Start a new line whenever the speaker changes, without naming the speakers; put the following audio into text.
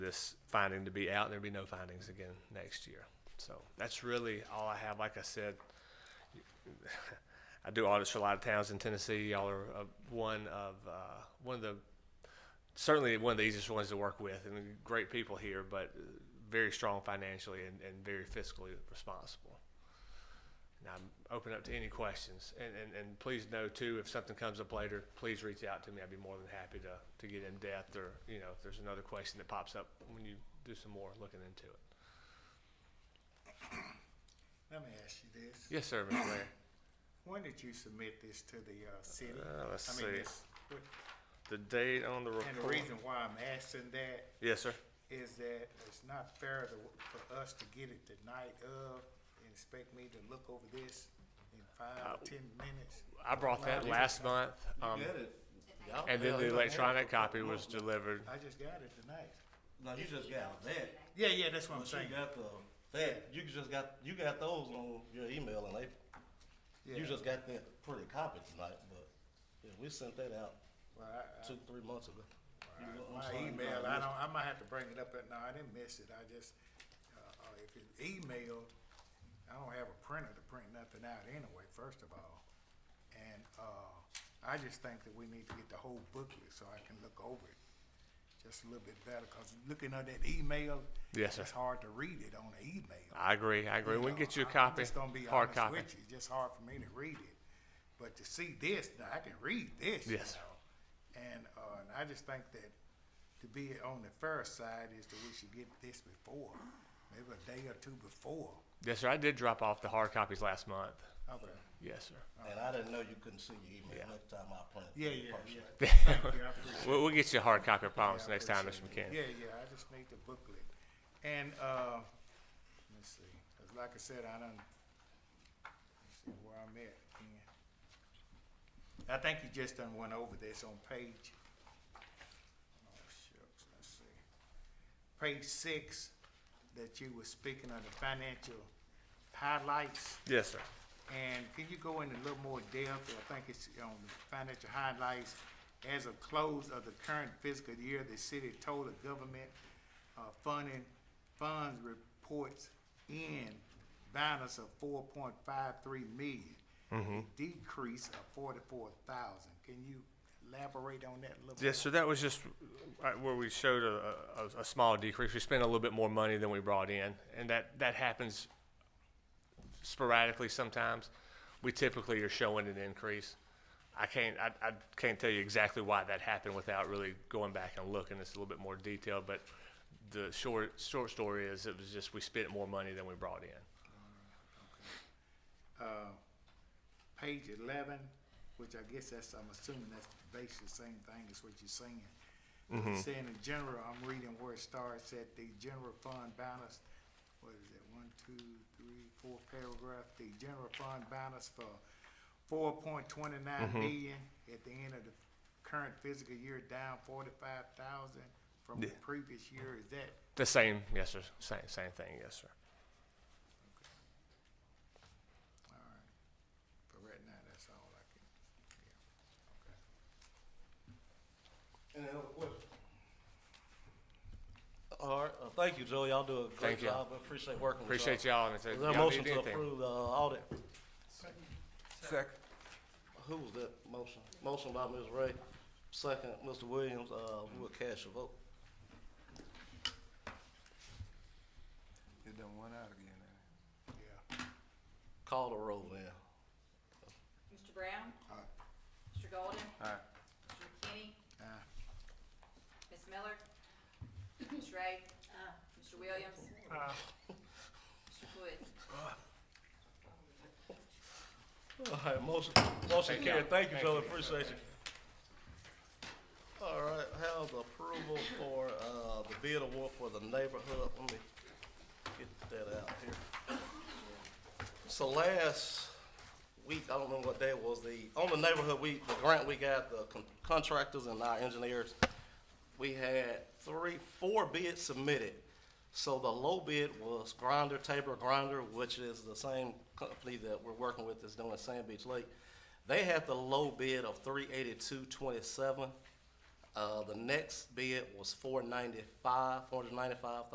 this finding to be out, and there'll be no findings again next year. So that's really all I have. Like I said, I do audits for a lot of towns in Tennessee. Y'all are uh, one of uh, one of the certainly one of the easiest ones to work with, and great people here, but uh, very strong financially and, and very fiscally responsible. And I'm open up to any questions. And, and, and please know too, if something comes up later, please reach out to me. I'd be more than happy to, to get in depth or, you know, if there's another question that pops up when you do some more looking into it.
Let me ask you this.
Yes, sir, Mr. Mayor.
When did you submit this to the uh, city?
Uh, let's
I mean,
see.
this- what-
The date on the
And the
report.
reason why I'm asking that
Yes, sir.
is that it's not fair to, for us to get it the night of and expect me to look over this in five or ten minutes.
I brought that last month. Um,
Get it.
and then the electronic copy was delivered.
I just got it tonight.
No, you just got that.
Yeah, yeah, that's what I'm
But you
saying.
got the that. You just got you got those on your email, and they
Yeah.
you just got that pretty copy tonight. But yeah, we sent that out
Well, I- I-
two three months ago. You know, I'm
My
sorry,
email,
no,
I don't, I might have to bring it up, but no, I didn't miss it, I just, uh, uh, if it's emailed, I don't have a printer to print nothing out anyway, first of all. And, uh, I just think that we need to get the whole booklet so I can look over it just a little bit better, cause looking at that email.
Yes, sir.
It's hard to read it on the email.
I agree. I agree. We can get you a copy,
I'm just gonna be
hard
honest
copy.
with you. It's just hard for me to read it. But to see this, now I can read this. you
Yes.
know. And, uh, and I just think that to be on the fair side is that we should get this before, maybe a day or two before.
Yes, sir. I did drop off the hard copies last month.
Okay.
Yes, sir.
And I didn't know you couldn't see your email next time I print. it
Yeah,
in
yeah,
person.
yeah. Thank you, I appreciate it.
We'll, we'll get you a hard copy, I
Yeah, I
promise, next time, Mr.
appreciate
McKinney.
it. Yeah, yeah, I just need the booklet. And, uh, let me see, 'cause like I said, I done, let's see where I'm at again. I think you just done went over this on page, oh, shucks, let's see. Page six, that you were speaking of the financial highlights.
Yes, sir.
And can you go into a little more depth, I think it's on the financial highlights, as of close of the current fiscal year, the city total government, uh, funding, funds reports in balance of four point five three million. a Decrease of forty-four thousand, can you elaborate on that a little?
Yes,
more?
so that was just right where we showed a, a, a small decrease. We spent a little bit more money than we brought in, and that, that happens sporadically sometimes. We typically are showing an increase. I can't, I, I can't tell you exactly why that happened without really going back and looking. It's a little bit more detailed, but the short, short story is it was just we spent more money than we brought in.
page eleven, which I guess that's, I'm assuming that's basically the same thing as what you're saying. It's Saying in general, I'm reading where it starts at the general fund balance, what is it, one, two, three, four paragraph, the general fund balance for four point twenty-nine million at the end of the current fiscal year, down forty-five thousand from the previous year, is that
The same, yes, sir, same, same thing, yes, sir.
for right now, that's all I can.
Any other questions? All right. Uh, thank you, Joe. Y'all do a great
Thank you.
job. I appreciate working.
Appreciate
with y'all.
y'all, and if
Is there a
y'all
motion
need
to
anything.
approve the uh, audit?
Second.
Who was that motion? Motion by Ms. Ray, second, Mr. Williams, uh, we'll cast your vote.
It done went out again. ain't
Yeah,
Call the roll now.
Mr. Brown?
Aye.
Mr. Golden?
it? All right.
Mr. McKinney?
Aye.
Ms. Miller? Ms. Ray? Mr. Williams? Mr. Woods?
All right, motion, motion
Thank
carried.
y'all.
Thank you,
Thank
Joe,
you.
appreciate you. All right, have the approval for, uh, the bid award for the neighborhood. Let me get that out here. So last week, I don't remember what day it was, the, on the neighborhood week, the grant we got, the con- contractors and our engineers, we had three, four bids submitted. So the low bid was Grinder, Tabor Grinder, which is the same company that we're working with that's doing Sand Beach Lake. They had the low bid of three eighty-two twenty-seven. Uh, the next bid was four ninety-five, four hundred ninety-five